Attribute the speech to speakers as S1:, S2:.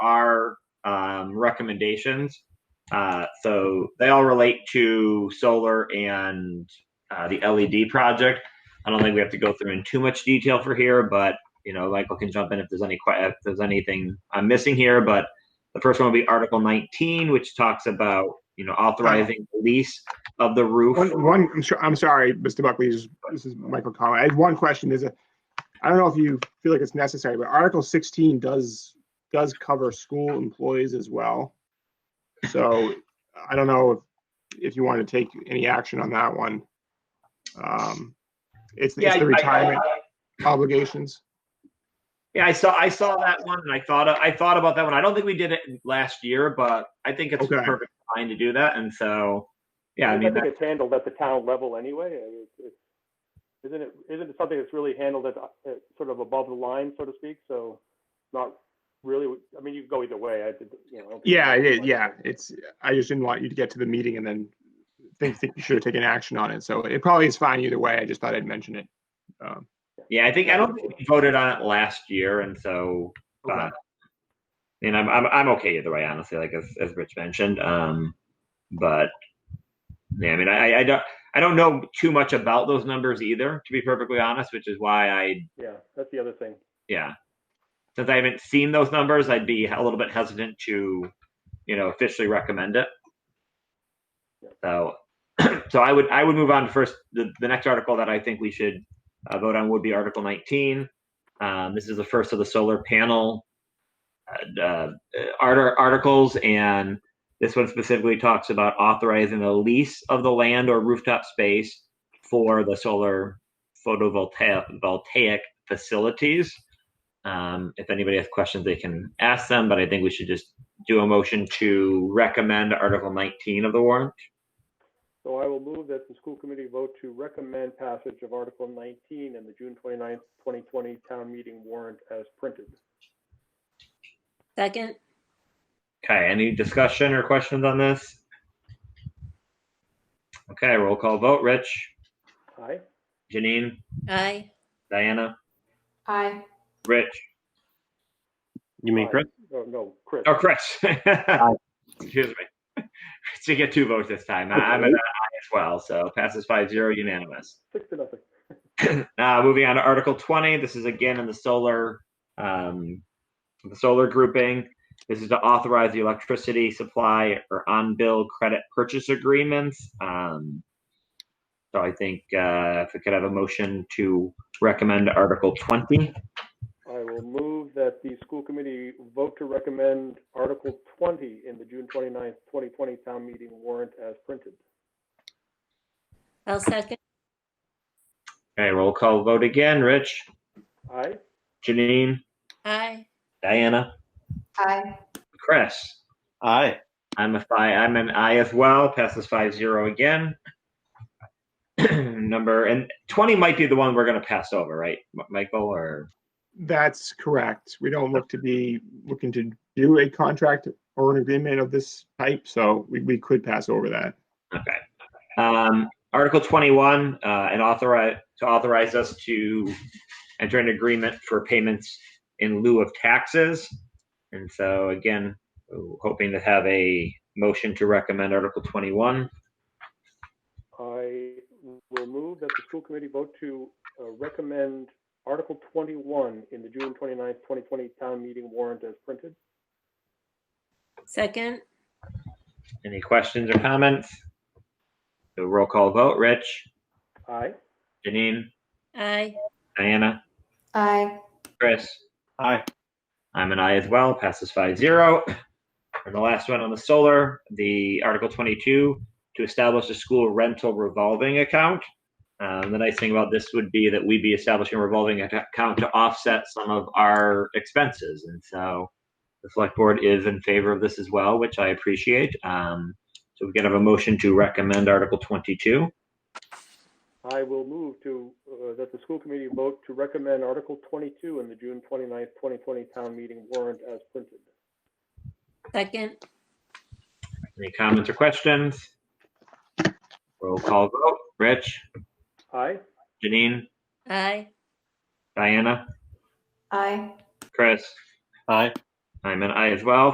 S1: um, recommendations. Uh, so they all relate to solar and uh, the LED project. I don't think we have to go through in too much detail for here, but you know, Michael can jump in if there's any que- if there's anything I'm missing here. But the first one will be Article 19, which talks about you know authorizing the lease of the roof.
S2: One, one, I'm sure, I'm sorry, Mr. Buckley, this is- this is Michael Collins. I have one question, is it, I don't know if you feel like it's necessary, but Article sixteen does, does cover school employees as well. So I don't know if, if you want to take any action on that one. Um, It's,
S1: Yeah,
S2: it's
S1: I-
S2: the
S1: I-
S2: retirement obligations.
S1: Yeah, I saw I saw that one, and I thought I thought about that one. I don't think we did it last year, but I think it's
S2: Okay.
S1: perfect time to do that. And so, yeah, I mean,
S3: think
S1: that,
S3: it's handled at the town level anyway. I mean, it's- it's- Isn't it, isn't it something that's really handled at, at sort of above the line, so to speak? So not really, I mean, you could go either way. I did, you know. I don't think-
S2: Yeah, yeah, yeah, it's, I just didn't want you to get to the meeting and then think, think you should have taken action on it. So it probably is fine either way. I just thought I'd mention it. Um,
S1: yeah, I think I don't think we voted on it last year, and so,
S2: okay.
S1: but, and I'm, I'm I'm okay either way, honestly. Like as as Rich mentioned, um, but yeah, I mean, I I don't I don't know too much about those numbers either, to be perfectly honest, which is why I
S3: Yeah, that's the other thing.
S1: yeah. Since I haven't seen those numbers, I'd be a little bit hesitant to, you know, officially recommend it. So, so I would, I would move on to first, the, the next article that I think we should uh, vote on would be Article 19. Um, this is the first of the solar panel uh, uh, art- articles, and this one specifically talks about authorizing the lease of the land or rooftop space for the solar photovoltaic voltaic facilities. Um, if anybody has questions, they can ask them, but I think we should just do a motion to recommend Article 19 of the warrant.
S3: So I will move that the school committee vote to recommend passage of Article 19 in the June 29th, 2020 town meeting warrant as printed.
S4: Second,
S1: Okay, any discussion or questions on this? Okay, roll call vote. Rich,
S3: Aye?
S1: Janine,
S4: aye.
S1: Diana,
S5: Aye.
S1: Rich,
S6: You mean
S3: Aye.
S6: Chris?
S3: Oh, no, Chris.
S1: or Chris. Excuse me. So you get two votes this time. I- I'm an aye as well, so passes 5 0 unanimous.
S3: Six to nothing.
S1: Uh, moving on to Article 20. This is again in the solar, um, the solar grouping. This is to authorize the electricity supply or on-bill credit purchase agreements. Um, so I think uh, if we could have a motion to recommend Article 20.
S3: I will move that the school committee vote to recommend Article 20 in the June 29th, 2020 town meeting warrant as printed.
S4: I'll second,
S1: Okay, roll call vote again. Rich,
S3: Aye?
S1: Janine,
S4: aye.
S1: Diana,
S5: Aye.
S1: Chris.
S6: Aye.
S1: I'm a five. I'm an I as well. Passes five zero again. Number and 20 might be the one we're going to pass over, right, M- Michael? Or
S2: That's correct. We don't look to be looking to do a contract or an agreement of this type, so we, we could pass over that.
S1: Okay. Um, Article twenty-one, uh, and authorize, to authorize us to enter an agreement for payments in lieu of taxes. And so again, hoping to have a motion to recommend Article twenty-one.
S3: I will move that the school committee vote to uh, recommend Article 21 in the June 29th, 2020 town meeting warrant as printed.
S4: Second,
S1: Any questions or comments? The roll call vote, Rich,
S3: Aye?
S1: Janine,
S4: aye.
S1: Diana,
S5: Aye.
S1: Chris.
S6: Aye.
S1: I'm an I as well, passes five zero. And the last one on the solar, the Article twenty-two, to establish a school rental revolving account. Um, the nice thing about this would be that we'd be establishing a revolving ac- account to offset some of our expenses. And so the select board is in favor of this as well, which I appreciate. Um, so we can have a motion to recommend Article twenty-two.
S3: I will move to, uh, that the school committee vote to recommend Article 22 in the June 29th, 2020 town meeting warrant as printed.
S4: Second,
S1: Any comments or questions? Roll call vote. Rich,
S3: Aye?
S1: Janine,
S4: aye.
S1: Diana,
S5: Aye.
S1: Chris.
S6: Aye.
S1: I'm an I as well.